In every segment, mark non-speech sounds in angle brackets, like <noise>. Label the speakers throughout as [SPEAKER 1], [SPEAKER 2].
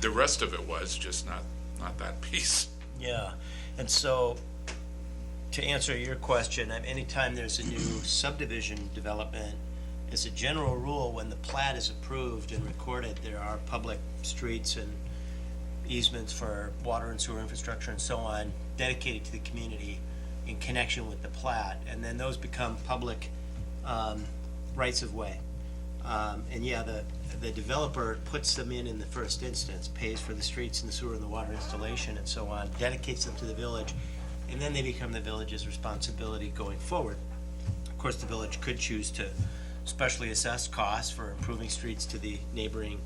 [SPEAKER 1] the rest of it was, just not, not that piece.
[SPEAKER 2] Yeah, and so, to answer your question, um, anytime there's a new subdivision development, as a general rule, when the plat is approved and recorded, there are public streets and easements for water and sewer infrastructure and so on dedicated to the community in connection with the plat, and then those become public um, rights of way. Um, And yeah, the, the developer puts them in in the first instance, pays for the streets and the sewer and the water installation and so on, dedicates them to the village, and then they become the village's responsibility going forward. Of course, the village could choose to specially assess costs for improving streets to the neighboring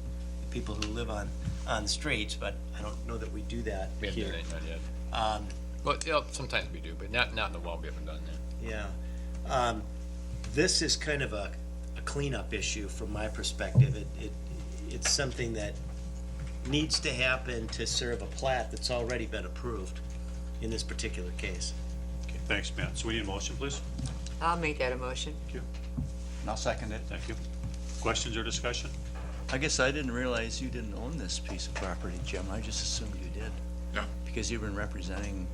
[SPEAKER 2] people who live on, on the streets, but I don't know that we do that
[SPEAKER 3] We haven't done
[SPEAKER 2] here.
[SPEAKER 3] anything yet.
[SPEAKER 4] Um,
[SPEAKER 3] Well, yeah, sometimes we do, but not, not in a while, we haven't done that.
[SPEAKER 2] Yeah. Um, This is kind of a a cleanup issue from my perspective. It, it, it's something that needs to happen to serve a plat that's already been approved in this particular case.
[SPEAKER 4] Okay, Thanks, Matt. So we need a motion, please?
[SPEAKER 5] I'll make that a motion.
[SPEAKER 4] Thank you.
[SPEAKER 6] And I'll second it.
[SPEAKER 4] Thank you. Questions or discussion?
[SPEAKER 6] I guess I didn't realize you didn't own this piece of property, Jim. I just assumed you did.
[SPEAKER 1] No.
[SPEAKER 6] Because you've been representing,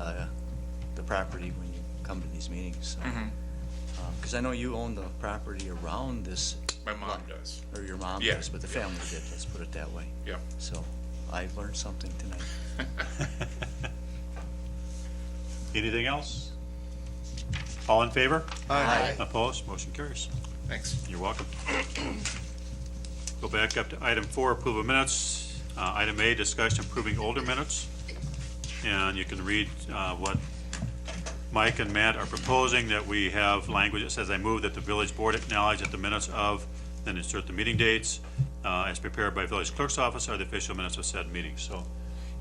[SPEAKER 6] uh, the property when you come to these meetings, so.
[SPEAKER 1] Mm-hmm.
[SPEAKER 6] Um, Cause I know you own the property around this,
[SPEAKER 1] My mom does.
[SPEAKER 6] or your mom
[SPEAKER 1] Yeah,
[SPEAKER 6] does, but the
[SPEAKER 1] yeah.
[SPEAKER 6] family did, let's put it that way.
[SPEAKER 1] Yeah.
[SPEAKER 6] So I learned something tonight.
[SPEAKER 4] Anything else? All in favor? Opposed? Motion carries.
[SPEAKER 1] Thanks.
[SPEAKER 4] You're welcome. Go back up to item four, approval of minutes. Uh, Item A, discussion approving older minutes. And you can read uh, what Mike and Matt are proposing, that we have language that says, "I move that the village board acknowledge that the minutes of," then insert the meeting dates, uh, "as prepared by village clerk's office are the official minutes of said meeting." So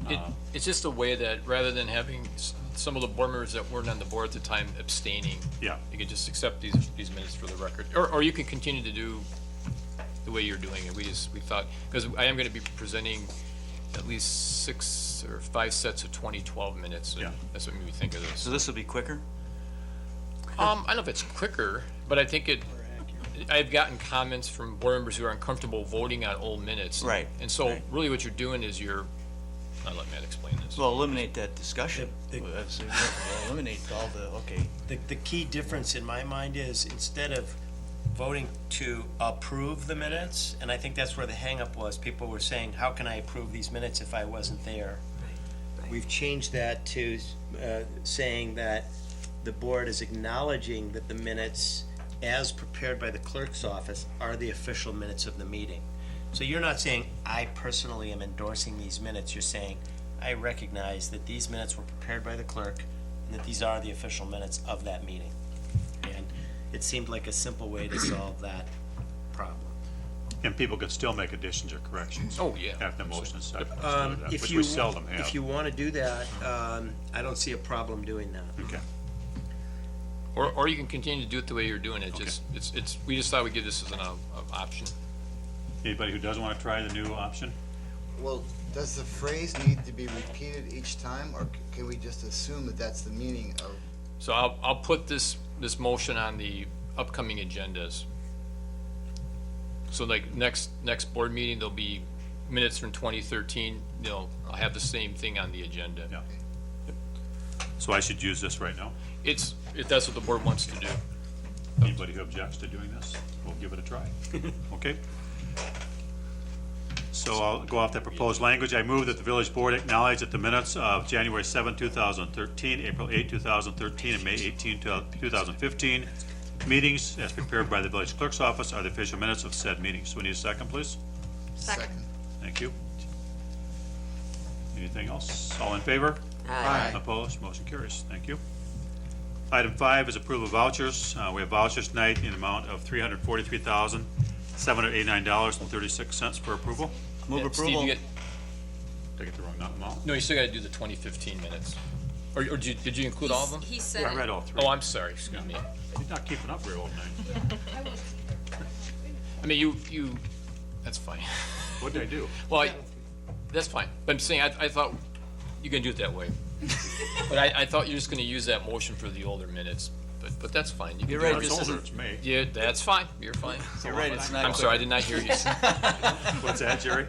[SPEAKER 3] It,
[SPEAKER 4] Uh,
[SPEAKER 3] it's just a way that, rather than having s- some of the board members that weren't on the board at the time abstaining.
[SPEAKER 4] Yeah.
[SPEAKER 3] You could just accept these, these minutes for the record, or, or you can continue to do the way you're doing it. We just, we thought, because I am gonna be presenting at least six or five sets of twenty twelve minutes. and
[SPEAKER 4] Yeah.
[SPEAKER 3] That's what made me think of this.
[SPEAKER 6] So this'll be quicker?
[SPEAKER 3] Um, I don't know if it's quicker, but I think it, I've gotten comments from board members who are uncomfortable voting on old minutes.
[SPEAKER 6] Right,
[SPEAKER 3] And so
[SPEAKER 6] right.
[SPEAKER 3] really what you're doing is you're, I'll let Matt explain this.
[SPEAKER 6] Well, eliminate that discussion.
[SPEAKER 2] The- the-
[SPEAKER 6] Well, that's- we'll Eliminate all the, okay,
[SPEAKER 2] The, the key difference in my mind is instead of voting to approve the minutes, and I think that's where the hangup was, people were saying, how can I approve these minutes if I wasn't there? We've changed that to uh, saying that the board is acknowledging that the minutes as prepared by the clerk's office are the official minutes of the meeting. So you're not saying, I personally am endorsing these minutes, you're saying, I recognize that these minutes were prepared by the clerk and that these are the official minutes of that meeting. And it seemed like a simple way
[SPEAKER 4] <clears throat>
[SPEAKER 2] to solve that problem.
[SPEAKER 4] And people can still make additions or corrections.
[SPEAKER 3] Oh, yeah.
[SPEAKER 4] After motion and second,
[SPEAKER 2] Um,
[SPEAKER 4] let's do that,
[SPEAKER 2] if
[SPEAKER 4] which
[SPEAKER 2] you-
[SPEAKER 4] we seldom have.
[SPEAKER 2] If you want to do that, um, I don't see a problem doing that.
[SPEAKER 4] Okay,
[SPEAKER 3] Or, or you can continue to do it the way you're doing it,
[SPEAKER 4] Okay.
[SPEAKER 3] just, it's, it's, we just thought we'd give this as an op- op- option.
[SPEAKER 4] anybody who doesn't want to try the new option?
[SPEAKER 7] Well, does the phrase need to be repeated each time, or c- can we just assume that that's the meaning of?
[SPEAKER 3] So I'll, I'll put this, this motion on the upcoming agendas. So like next, next board meeting, there'll be minutes from twenty thirteen, you know, I'll have the same thing on the agenda.
[SPEAKER 4] Yeah. So I should use this right now?
[SPEAKER 3] It's, if that's what the board wants to do.
[SPEAKER 4] Anybody who objects to doing this, we'll give it a
[SPEAKER 2] <laughs>
[SPEAKER 4] try. Okay? So I'll go off that proposed language. I move that the village board acknowledge that the minutes of January 7, 2013, April 8, 2013, and May 18, 2015 meetings as prepared by the village clerk's office are the official minutes of said meetings. So we need a second, please.
[SPEAKER 5] Second.
[SPEAKER 4] Thank you. Anything else? All in favor?
[SPEAKER 5] Aye.
[SPEAKER 4] Opposed, motion carries. Thank you. Item five is approval of vouchers. Uh, We have vouchers tonight in amount of $343,789.36 for approval.
[SPEAKER 6] move
[SPEAKER 3] Yeah, Steve, you
[SPEAKER 6] approval.
[SPEAKER 3] get-
[SPEAKER 4] Did I get the wrong amount?
[SPEAKER 3] No, you still gotta do the twenty fifteen minutes. Or, or did you, did you include all of them?
[SPEAKER 5] Uh, He
[SPEAKER 4] I
[SPEAKER 5] said
[SPEAKER 4] read all three.
[SPEAKER 3] Oh, I'm sorry, excuse me.
[SPEAKER 4] You're not keeping up real old night.
[SPEAKER 3] I mean, you, you, that's fine. <laughs>
[SPEAKER 4] What did I do?
[SPEAKER 3] Well, I- that's fine, but I'm saying, I, I thought you can do it that
[SPEAKER 6] <laughs>
[SPEAKER 3] way. But I, I thought you were just gonna use that motion for the older minutes, but, but that's fine. You can
[SPEAKER 6] You're
[SPEAKER 3] do
[SPEAKER 6] right,
[SPEAKER 3] it.
[SPEAKER 6] this
[SPEAKER 4] It's older,
[SPEAKER 6] isn't,
[SPEAKER 4] it's me.
[SPEAKER 6] <laughs>
[SPEAKER 3] Yeah, that's fine, you're fine.
[SPEAKER 6] you're right, it's not.
[SPEAKER 3] I'm sorry, I did not hear you.
[SPEAKER 6] <laughs>
[SPEAKER 4] What's that, Jerry?